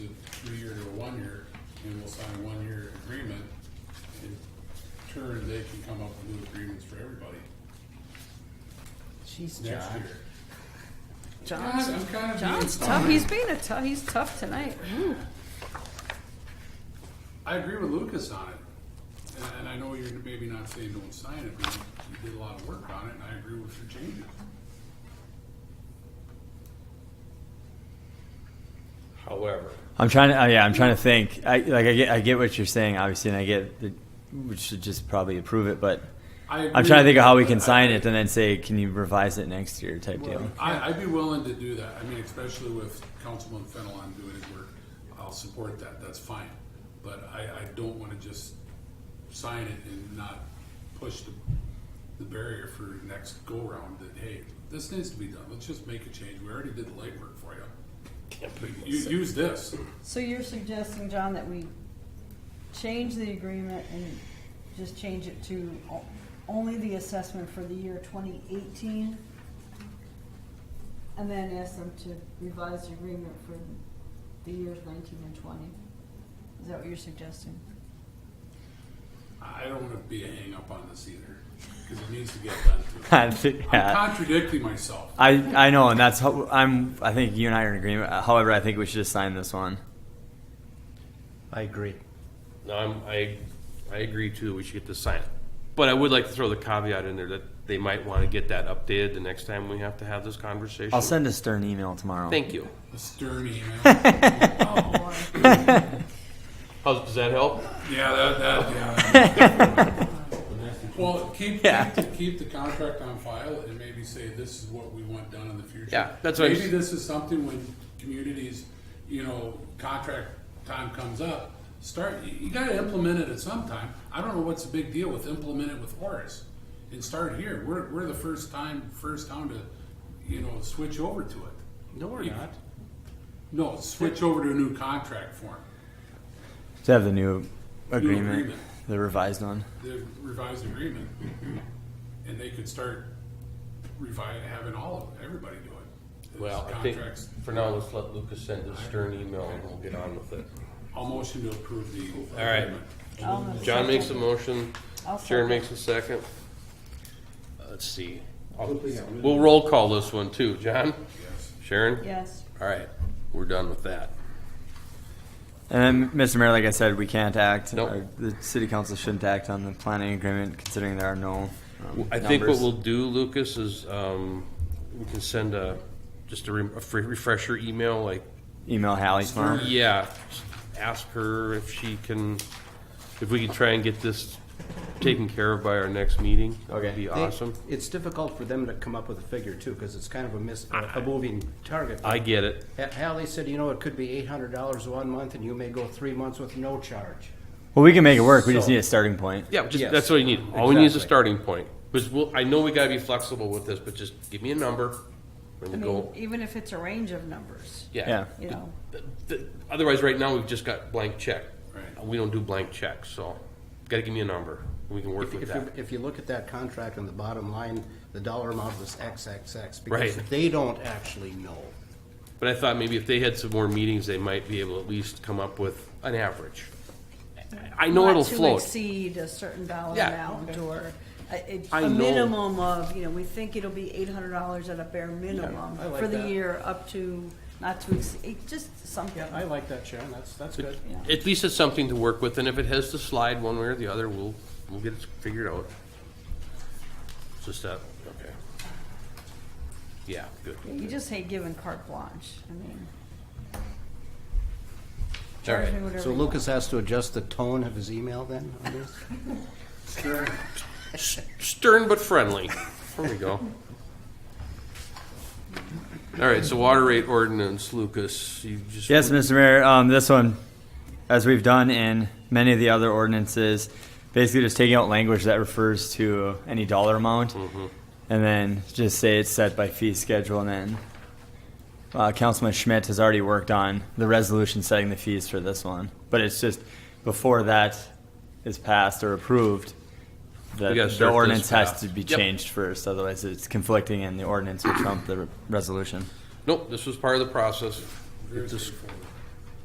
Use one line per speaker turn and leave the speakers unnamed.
year, and we'll sign a one-year agreement. In turn, they can come up with new agreements for everybody
She's
next
Josh.
year.
John's,
God, I'm kind of
John's
being
tough.
sorry.
He's being a tough. He's tough tonight. Ooh.
I agree with Lucas on it, and, and I know you're maybe not saying don't sign it, but you did a lot of work on it, and I agree with your changes.
However,
I'm trying to. Uh, yeah, I'm trying to think. I like. I get. I get what you're saying, obviously, and I get. The, we should just probably approve it, but
I
I'm
agree
trying to think of how we can
with-
sign it and then say, "Can you revise it next year?" Type deal.
I, I'd be willing to do that, I mean, especially with Councilman Fennelon doing his work, I'll support that, that's fine. But I, I don't wanna just sign it and not push the, the barrier for next go-round that, hey, this needs to be done, let's just make a change, we already did the legwork for you. You, use this,
So you're suggesting, John, that we change the agreement and just change it to o- only the assessment for the year twenty eighteen? And then ask them to revise the agreement for the years nineteen and twenty? Is that what you're suggesting?
I don't wanna be a hang-up on this either, cause it needs to get done too.
I think-
I'm
yeah.
contradicting myself.
I I know, and that's how I'm. I think you and I are in agreement. However, I think we should just sign this one.
I agree.
no, I'm, I, I agree too, we should get this signed. But I would like to throw the caveat in there that they might want to get that updated the next time we have to have this conversation.
I'll send a stern email tomorrow.
Thank you.
A stern email.
Oh, boy.
How, does that help?
Yeah, that, that, yeah. Well, keep,
Yeah.
keep, the- keep the contract on file and maybe say this is what we want done in the future.
Yeah, that's what I'm
Maybe
s-
this is something when communities, you know, contract time comes up, start, you, you gotta implement it at some time. I don't know what's the big deal with implement it with Horace and start here. We're, we're the first time, first town to, you know, switch over to it.
No, we're not.
No, switch over to a new contract form,
To have the new agreement,
agreement.
the revised one.
the revised agreement, and they could start revi- having all of, everybody do it.
Well, I think
Contracts,
for now, let's let Lucas send a stern email and we'll get on with it.
I'll motion to approve the
All right.
agreement.
I'll-
John makes a motion,
I'll second.
Sharon makes a second. Uh, Let's see. I'll- We'll roll call this one too. John?
Yes.
Sharon?
Yes,
All right, we're done with that.
And then, Mr. Mayor, like I said, we can't act.
Nope.
or The city council shouldn't act on the planning agreement, considering there are no. um,
I think what
numbers.
we'll do, Lucas, is um, we can send a, just a re- a free refresher email, like,
email Hallie tomorrow.
yeah, ask her if she can, if we can try and get this taken care of by our next meeting. That would
Okay.
be
They-
awesome.
It's difficult for them to come up with a figure too, because it's kind of a miss, a moving target.
I get it.
Ha- Hallie said, you know, it could be eight hundred dollars one month and you may go three months with no charge.
Well, we can make it work. We just
So-
need a starting point.
Yeah, just,
Yes.
that's what you need. All we need is a
Exactly.
starting point. Because we'll, I know we gotta be flexible with this, but just give me a number and
I
we'll
mean,
go.
even if it's a range of numbers,
Yeah.
Yeah.
you know,
Th- th- Otherwise, right now, we've just got blank check.
Right.
We don't do blank checks, so gotta give me a number. We can work
If
with
if you,
that.
if you look at that contract on the bottom line, the dollar amount was XXX. because
Right.
They don't actually know.
But I thought maybe if they had some more meetings, they might be able to at least come up with an average. I- I know
not
it'll
to
float.
Exceed a certain dollar
Yeah.
amount or a, a-
I
a
know.
minimum of, you know, we think it'll be eight hundred dollars at a bare minimum
I like
for the
that.
year up to, not to exceed, just something.
Yeah, I like that, Sharon, that's, that's good.
At least it's something to work with, and if it has to slide one way or the other, we'll, we'll get it figured out. It's Just that, okay. Yeah, good.
You just hate giving carte blanche, I mean,
All
charge
right.
me whatever.
So
you want.
Lucas has to adjust the tone of his email then on this?
Stern but friendly. There we go. All right, so water rate ordinance, Lucas, you just.
Yes, Mr. Mayor, um, this one, as we've done in many of the other ordinances, basically just taking out language that refers to any dollar amount.
Mm-hmm.
And then just say it's set by fee schedule and then, uh, Councilman Schmidt has already worked on the resolution setting the fees for this one. But it's just before that is passed or approved, the,
We gotta
the
start this
ordinance has
path.
to be
Yep.
changed first, otherwise it's conflicting and the ordinance will trump the re- resolution.
Nope, this was part of the process.
Very straightforward.